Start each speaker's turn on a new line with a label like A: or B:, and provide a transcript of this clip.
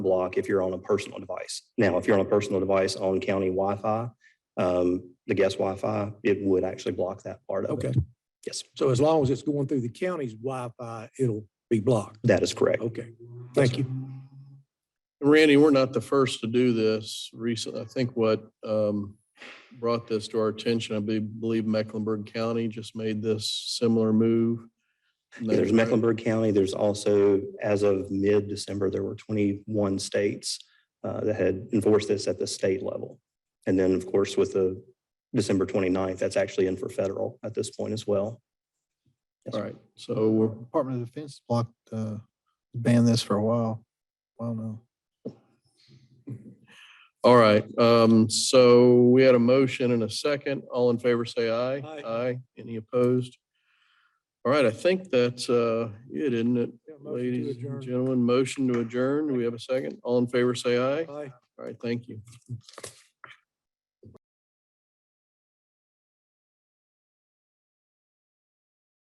A: block if you're on a personal device. Now, if you're on a personal device on county Wi-Fi, um, the guest Wi-Fi, it would actually block that part of it.
B: Okay,
A: Yes,
B: so as long as it's going through the county's Wi-Fi, it'll be blocked.
A: that is correct.
B: Okay, thank you.
C: Randy, we're not the first to do this recent. I think what um, brought this to our attention, I be- believe Mecklenburg County just made this similar move.
A: Yeah, There's Mecklenburg County. There's also, as of mid-December, there were 21 states uh, that had enforced this at the state level. And then, of course, with the December 29th, that's actually in for federal at this point as well. Yes,
C: All right, so we're,
D: Department of Defense blocked, uh, banned this for a while. I don't know.
C: all right. um, So we had a motion and a second. All in favor, say aye.
B: Aye.
C: Aye. Any opposed? All right, I think that's uh, it, isn't it, ladies and gentlemen? Motion to adjourn. Do we have a second? All in favor, say aye.
B: Aye.
C: All right, thank you.